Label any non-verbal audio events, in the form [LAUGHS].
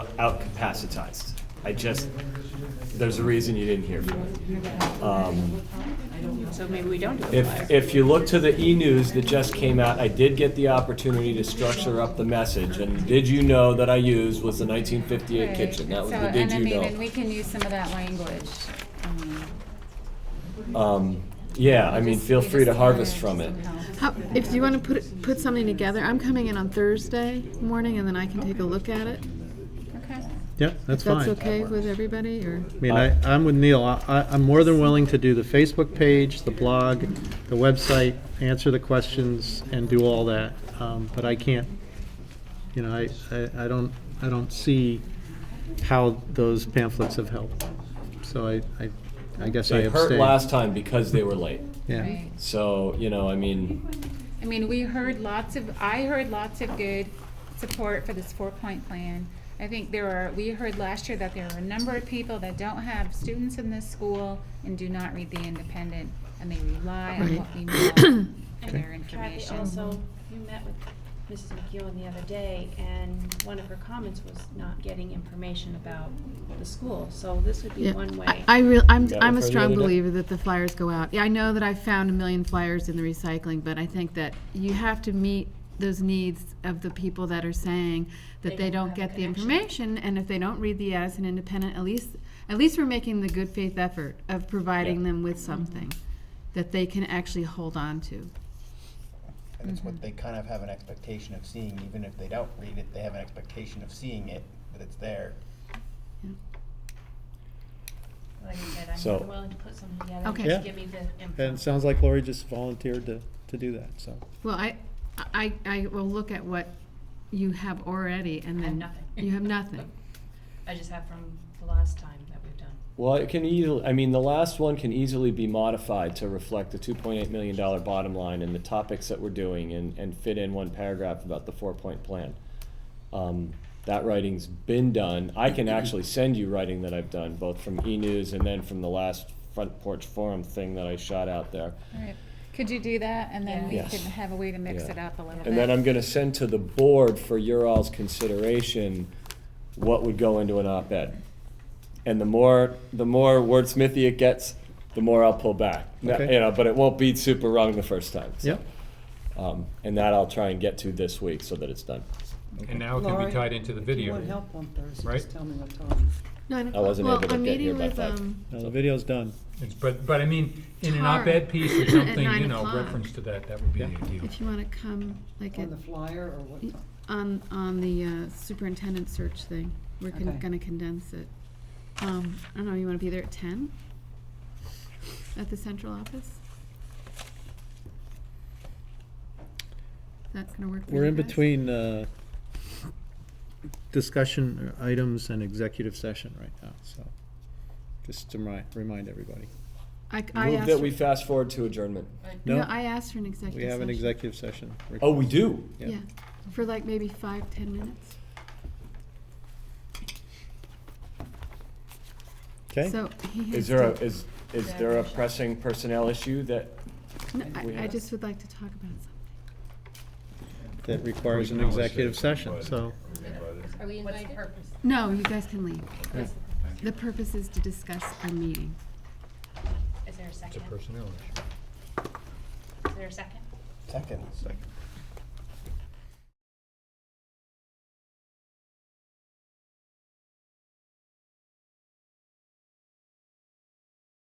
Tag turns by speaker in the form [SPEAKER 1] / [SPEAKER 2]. [SPEAKER 1] outcapacitized. I just, there's a reason you didn't hear from me. Um,
[SPEAKER 2] So maybe we don't do a flyer.
[SPEAKER 1] If, if you look to the e-news that just came out, I did get the opportunity to structure up the message, and did you know that I used was the nineteen fifty-eight
[SPEAKER 3] Right.
[SPEAKER 1] kitchen, that was
[SPEAKER 3] So,
[SPEAKER 1] the did you
[SPEAKER 3] And I
[SPEAKER 1] know.
[SPEAKER 3] mean, and we can use some of that language. um,
[SPEAKER 1] Um, yeah, I mean,
[SPEAKER 3] just-
[SPEAKER 1] feel
[SPEAKER 3] we
[SPEAKER 1] free to
[SPEAKER 3] just
[SPEAKER 1] harvest
[SPEAKER 3] wanna
[SPEAKER 1] from it.
[SPEAKER 3] somehow-
[SPEAKER 4] How, if you want to put it- put something together, I'm coming in on Thursday morning, and then I can take a look at it.
[SPEAKER 3] Okay.
[SPEAKER 5] Yeah, that's
[SPEAKER 4] If that's
[SPEAKER 5] fine.
[SPEAKER 4] okay with everybody, or
[SPEAKER 5] I mean, I, I'm with Neil. I, I- I'm more than willing to do the Facebook page, the blog, the website, answer the questions and do all that. Um, but I can't, you know, I, I, I don't, I don't see how those pamphlets have helped. So I, I, I guess I
[SPEAKER 1] They
[SPEAKER 5] abstain.
[SPEAKER 1] hurt last time because they were late.
[SPEAKER 5] Yeah,
[SPEAKER 3] Right.
[SPEAKER 1] So, you know, I mean,
[SPEAKER 3] I mean, we heard lots of, I heard lots of good support for this four-point plan. I think there are, we heard last year that there are a number of people that don't have students in this school and do not read The Independent, and they rely on what we know for their
[SPEAKER 6] Kathy
[SPEAKER 3] information.
[SPEAKER 6] also, you met with Mrs. McEwen the other day, and one of her comments was not getting information about the school, so this would be
[SPEAKER 4] yeah,
[SPEAKER 6] one way.
[SPEAKER 4] I, I real I'm
[SPEAKER 1] Got
[SPEAKER 4] I'm
[SPEAKER 1] it for
[SPEAKER 4] a
[SPEAKER 1] the
[SPEAKER 4] strong
[SPEAKER 1] other day?
[SPEAKER 4] believer that the flyers go out. Yeah, I know that I found a million flyers in the recycling, but I think that you have to meet those needs of the people that are saying that they,
[SPEAKER 6] They don't
[SPEAKER 4] don't
[SPEAKER 6] have
[SPEAKER 4] get
[SPEAKER 6] a
[SPEAKER 4] the
[SPEAKER 6] connection.
[SPEAKER 4] information, and if they don't read the as an independent, at least at least we're making the good faith effort of providing
[SPEAKER 1] Yeah.
[SPEAKER 4] them with something that they can actually hold on to.
[SPEAKER 7] And it's what they kind of have an expectation of seeing, even if they don't read it, they have an expectation of seeing it, that it's there.
[SPEAKER 6] Like I said, I'm
[SPEAKER 1] So-
[SPEAKER 6] more than willing to put something together.
[SPEAKER 4] Okay.
[SPEAKER 6] Just
[SPEAKER 5] Yeah.
[SPEAKER 6] give me the info.
[SPEAKER 5] and it sounds like Lori just volunteered to, to do that, so.
[SPEAKER 4] Well, I, I, I will look at what you have already and
[SPEAKER 8] I
[SPEAKER 4] then.
[SPEAKER 8] have nothing.
[SPEAKER 4] You
[SPEAKER 6] [LAUGHS]
[SPEAKER 4] have nothing.
[SPEAKER 8] I just have from the last time that we've done.
[SPEAKER 1] well, it can easily, I mean, the last one can easily be modified to reflect the two point eight million dollar bottom line and the topics that we're doing and, and fit in one paragraph about the four-point plan. Um, that writing's been done. I can actually send you writing that I've done, both from e-news and then from the last front porch forum thing that I shot out there.
[SPEAKER 3] Alright. Could you do that, and then we
[SPEAKER 1] Yeah.
[SPEAKER 3] could have a way to mix
[SPEAKER 1] Yeah.
[SPEAKER 3] it up a little bit?
[SPEAKER 1] And then I'm gonna send to the board for your all's consideration, what would go into an op-ed. And the more, the more wordsmithy it gets, the more I'll pull back. Now,
[SPEAKER 5] Okay.
[SPEAKER 1] You know, but it won't be super wrong the first time. so,
[SPEAKER 5] Yeah,
[SPEAKER 1] Um, and that I'll try and get to this week so that it's done.
[SPEAKER 9] And now it can
[SPEAKER 10] Laurie,
[SPEAKER 9] be tied into the video.
[SPEAKER 10] If you want help on Thursday,
[SPEAKER 9] right?
[SPEAKER 10] just tell me what time.
[SPEAKER 4] [LAUGHS] Nine
[SPEAKER 1] I
[SPEAKER 4] o'clock.
[SPEAKER 1] wasn't
[SPEAKER 4] Well,
[SPEAKER 1] able to
[SPEAKER 4] I'm
[SPEAKER 1] get here
[SPEAKER 4] meeting
[SPEAKER 1] by
[SPEAKER 4] with,
[SPEAKER 1] five.
[SPEAKER 4] um,
[SPEAKER 5] no, the video's done.
[SPEAKER 9] It's- But, but I mean, in an
[SPEAKER 4] Tomorrow.
[SPEAKER 9] op-ed piece
[SPEAKER 4] [COUGHS] At
[SPEAKER 9] or something,
[SPEAKER 4] nine
[SPEAKER 9] you know,
[SPEAKER 4] o'clock.
[SPEAKER 9] reference to that, that would be
[SPEAKER 5] Yeah.
[SPEAKER 9] ideal.
[SPEAKER 4] If you want to come, like,
[SPEAKER 10] On
[SPEAKER 4] at-
[SPEAKER 10] the flyer or what time?
[SPEAKER 4] on, on the uh, superintendent search thing, we're
[SPEAKER 10] Okay.
[SPEAKER 4] going to condense it. Um, I don't know, you want to be there at ten? At the central office? That's going to work for you
[SPEAKER 5] We're in
[SPEAKER 4] guys?
[SPEAKER 5] between uh, discussion items and executive session right now, so just to remind, remind everybody.
[SPEAKER 4] I, I
[SPEAKER 1] Move
[SPEAKER 4] asked,
[SPEAKER 1] that
[SPEAKER 4] for-
[SPEAKER 1] we fast forward to adjournment.
[SPEAKER 4] no,
[SPEAKER 5] No,
[SPEAKER 4] I asked for an executive
[SPEAKER 5] we have
[SPEAKER 4] session.
[SPEAKER 5] an executive session.
[SPEAKER 1] Oh, we
[SPEAKER 5] request.
[SPEAKER 1] do?
[SPEAKER 5] Yeah.
[SPEAKER 4] Yeah, for like maybe five, ten minutes.
[SPEAKER 5] Okay,
[SPEAKER 4] So he has
[SPEAKER 1] Is there a,
[SPEAKER 4] to-
[SPEAKER 1] is, is there a pressing personnel issue that,
[SPEAKER 4] No,
[SPEAKER 1] we
[SPEAKER 4] I, I
[SPEAKER 1] have-
[SPEAKER 4] just would like to talk about something.
[SPEAKER 5] that requires an executive session, so,
[SPEAKER 8] Are we invited? What's the purpose?
[SPEAKER 4] No, you guys can leave. The purpose is to discuss our meeting.
[SPEAKER 8] Is there a
[SPEAKER 9] It's a
[SPEAKER 8] second?
[SPEAKER 9] personnel issue.
[SPEAKER 8] Is there a second?
[SPEAKER 7] Second. Second.